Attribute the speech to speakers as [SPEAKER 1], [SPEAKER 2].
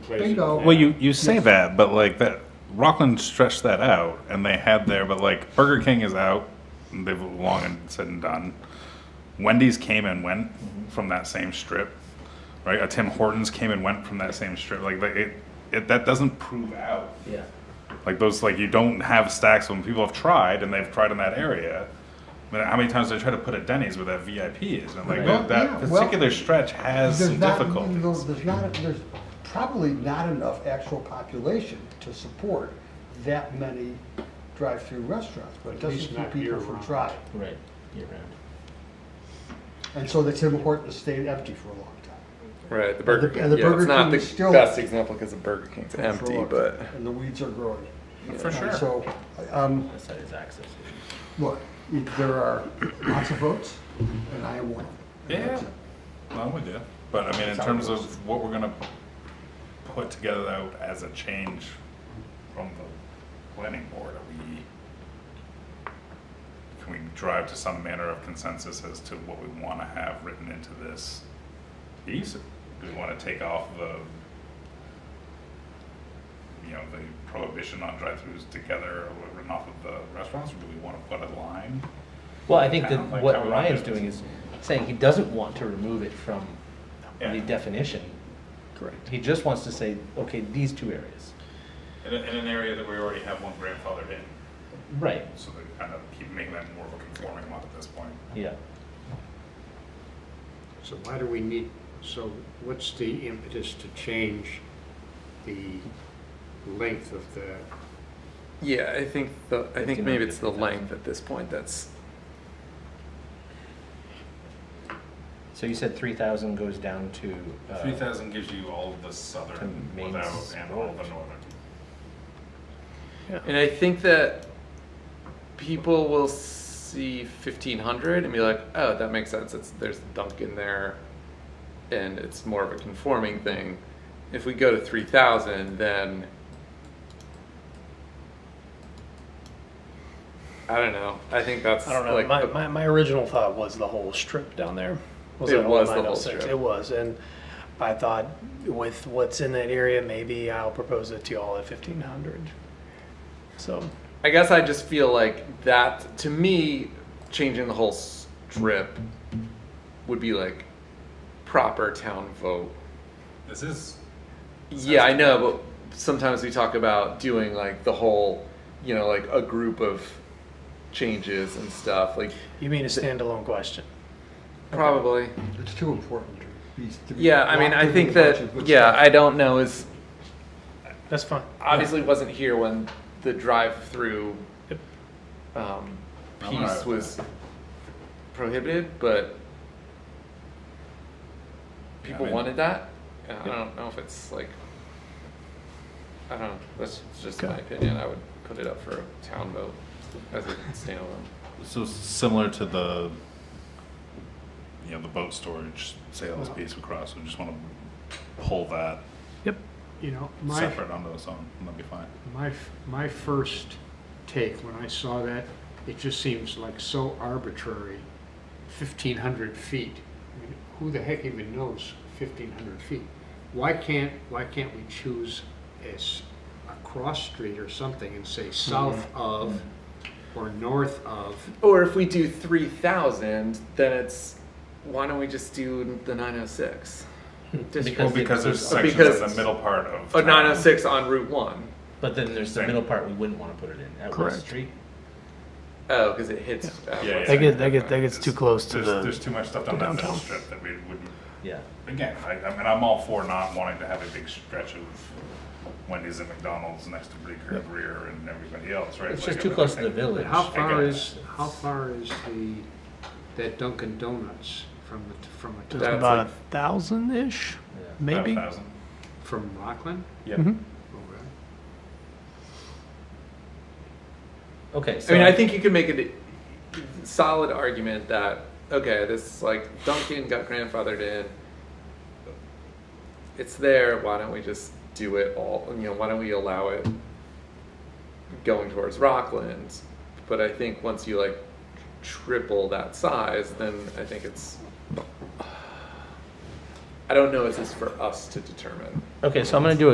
[SPEAKER 1] places.
[SPEAKER 2] Bingo.
[SPEAKER 1] Yeah.
[SPEAKER 3] Well, you, you say that, but like that, Rockland stretched that out and they had there, but like Burger King is out. and They've long and said and done. Wendy's came and went from that same strip, right? A Tim Hortons came and went from that same strip. Like like, it, it that doesn't prove out.
[SPEAKER 4] Yeah.
[SPEAKER 3] Like those, like you don't have stacks when people have tried and they've tried in that area. I mean, how many times they try to put a Denny's where that VIP is, and like
[SPEAKER 4] Right.
[SPEAKER 3] that, that
[SPEAKER 2] Yeah, well,
[SPEAKER 3] particular stretch has
[SPEAKER 2] There's
[SPEAKER 3] some
[SPEAKER 2] not-
[SPEAKER 3] difficulty.
[SPEAKER 2] There's there's not, there's probably not enough actual population to support that many drive-through restaurants, but it
[SPEAKER 1] At
[SPEAKER 2] doesn't
[SPEAKER 1] least
[SPEAKER 2] keep
[SPEAKER 1] not
[SPEAKER 2] people from
[SPEAKER 1] year-round.
[SPEAKER 2] trying.
[SPEAKER 4] Right, year round.
[SPEAKER 2] And so the Tim Hortons stayed empty for a long time.
[SPEAKER 5] Right, the Burger
[SPEAKER 2] the-
[SPEAKER 5] King.
[SPEAKER 2] and the
[SPEAKER 5] yeah,
[SPEAKER 2] Burger
[SPEAKER 5] it's not
[SPEAKER 2] King
[SPEAKER 5] the
[SPEAKER 2] is still-
[SPEAKER 5] best example because the Burger King's
[SPEAKER 2] For a
[SPEAKER 5] empty,
[SPEAKER 2] long
[SPEAKER 5] but
[SPEAKER 2] time. And the weeds are growing.
[SPEAKER 3] For
[SPEAKER 2] And
[SPEAKER 3] sure.
[SPEAKER 2] So, um,
[SPEAKER 4] That side is access. issues.
[SPEAKER 2] look, it- there are lots of votes, and I am one. And
[SPEAKER 3] Yeah,
[SPEAKER 2] that's it.
[SPEAKER 3] no, I'm with you. But I mean, in terms of what we're gonna put together out as a change from the planning board, are we, can we drive to some manner of consensus as to what we wanna have written into this piece? Do we wanna take off the, you know, the prohibition on drive-throughs together or written off of the restaurants? Or do we wanna put a line?
[SPEAKER 4] Well, I think that
[SPEAKER 3] Town, like
[SPEAKER 4] what
[SPEAKER 3] town
[SPEAKER 4] Ryan's
[SPEAKER 3] business.
[SPEAKER 4] doing is saying he doesn't want to remove it from
[SPEAKER 3] Yeah.
[SPEAKER 4] the definition.
[SPEAKER 5] correct.
[SPEAKER 4] He just wants to say, okay, these two areas.
[SPEAKER 3] In, a- in an area that we already have one grandfathered in?
[SPEAKER 4] Right,
[SPEAKER 3] So they kind of keep making that more of a conforming lot at this point.
[SPEAKER 4] yeah.
[SPEAKER 1] So why do we need, so what's the impetus to change the length of the,
[SPEAKER 5] Yeah, I think the I think
[SPEAKER 4] 59,
[SPEAKER 5] maybe it's the
[SPEAKER 4] 50,000.
[SPEAKER 5] length at this point that's
[SPEAKER 4] So you said three thousand goes down to, uh,
[SPEAKER 3] Three thousand gives you all the
[SPEAKER 4] To
[SPEAKER 3] southern
[SPEAKER 4] main oh.
[SPEAKER 3] without and all the
[SPEAKER 4] sport.
[SPEAKER 3] northern.
[SPEAKER 5] And I think that people will see 1500 and be like, oh, that makes sense. It's there's a Dunkin' there, and it's more of a conforming thing. If we go to 3000, then I don't know. I think that's
[SPEAKER 6] I don't know.
[SPEAKER 5] Like
[SPEAKER 6] my,
[SPEAKER 5] the-
[SPEAKER 6] my, my original thought was the whole strip down there.
[SPEAKER 5] It
[SPEAKER 6] that
[SPEAKER 5] was the whole
[SPEAKER 6] 906?
[SPEAKER 5] strip.
[SPEAKER 6] It was, and I thought with what's in that area, maybe I'll propose it to y'all at fifteen hundred. So
[SPEAKER 5] I guess I just feel like that to me, changing the whole strip would be like proper town vote.
[SPEAKER 3] This is,
[SPEAKER 5] Yeah, I know, but sometimes we talk about doing like the whole, you know, like a group of changes and stuff. Like
[SPEAKER 6] you mean a standalone question?
[SPEAKER 5] probably.
[SPEAKER 2] It's too important to be. to be
[SPEAKER 5] Yeah, I mean,
[SPEAKER 2] locked
[SPEAKER 5] I
[SPEAKER 2] into
[SPEAKER 5] think
[SPEAKER 2] a bunch of
[SPEAKER 5] that
[SPEAKER 2] good
[SPEAKER 5] yeah,
[SPEAKER 2] stuff.
[SPEAKER 5] I don't know is
[SPEAKER 6] That's fine.
[SPEAKER 5] obviously wasn't here when the drive-through
[SPEAKER 6] Yep.
[SPEAKER 5] um,
[SPEAKER 3] I'm all right
[SPEAKER 5] piece
[SPEAKER 3] with
[SPEAKER 5] was prohibited, but
[SPEAKER 3] Yeah, I
[SPEAKER 5] people
[SPEAKER 3] mean-
[SPEAKER 5] wanted that. And I don't know if it's like I don't know. That's just my
[SPEAKER 6] Okay.
[SPEAKER 5] opinion. I would put it up for a town vote as a standalone.
[SPEAKER 3] so similar to the, you know, the boat storage sales piece across, we just wanna pull that
[SPEAKER 6] Yep.
[SPEAKER 1] you know, my,
[SPEAKER 3] separate onto its own, and that'd be fine.
[SPEAKER 1] my, my first take when I saw that, it just seems like so arbitrary, fifteen hundred feet. I mean, Who the heck even knows fifteen hundred feet? Why can't, why can't we choose as a cross street or something and say south of or north of?
[SPEAKER 5] Or if we do three thousand, then it's why don't we just do the nine oh six?
[SPEAKER 3] Well,
[SPEAKER 4] Because it-
[SPEAKER 3] because there's
[SPEAKER 5] uh,
[SPEAKER 3] sections of
[SPEAKER 5] because-
[SPEAKER 3] the middle part of.
[SPEAKER 5] Oh,
[SPEAKER 3] town.
[SPEAKER 5] 906 on Route One.
[SPEAKER 4] But then there's the
[SPEAKER 3] Same.
[SPEAKER 4] middle part we wouldn't wanna put it in, at West
[SPEAKER 6] Correct.
[SPEAKER 4] Street.
[SPEAKER 5] Oh, because it hits. uh,
[SPEAKER 3] Yeah,
[SPEAKER 5] West
[SPEAKER 3] yeah.
[SPEAKER 6] That
[SPEAKER 5] Side.
[SPEAKER 6] gets that gets that gets too close to
[SPEAKER 3] There's, there's
[SPEAKER 6] the.
[SPEAKER 3] too much stuff down that middle
[SPEAKER 6] downtown.
[SPEAKER 3] strip that we would,
[SPEAKER 4] Yeah,
[SPEAKER 3] again, I, I mean, I'm all for not wanting to have a big stretch of Wendy's and McDonald's next to Bleecker and Greer and everybody else, right?
[SPEAKER 4] it's
[SPEAKER 3] Like,
[SPEAKER 4] just too
[SPEAKER 3] I
[SPEAKER 4] close to the
[SPEAKER 3] think-
[SPEAKER 4] village.
[SPEAKER 1] How
[SPEAKER 3] I
[SPEAKER 1] far
[SPEAKER 3] get
[SPEAKER 1] is, how far is the, that Dunkin' Donuts from, the from, a
[SPEAKER 6] There's
[SPEAKER 1] town-
[SPEAKER 5] That's
[SPEAKER 6] about a
[SPEAKER 5] like-
[SPEAKER 6] thousand ish,
[SPEAKER 4] Yeah.
[SPEAKER 3] About a
[SPEAKER 6] maybe.
[SPEAKER 3] thousand.
[SPEAKER 1] from Rockland?
[SPEAKER 3] Yeah.
[SPEAKER 4] Mm-hmm.
[SPEAKER 1] Okay.
[SPEAKER 4] Okay,
[SPEAKER 5] I
[SPEAKER 4] so.
[SPEAKER 5] mean, I think you can make a solid argument that okay, this like Duncan got grandfathered in. It's there. Why don't we just do it all? You know, why don't we allow it going towards Rockland? But I think once you like triple that size, then I think it's. I don't know. Is this for us to determine?
[SPEAKER 4] Okay, so I'm gonna do a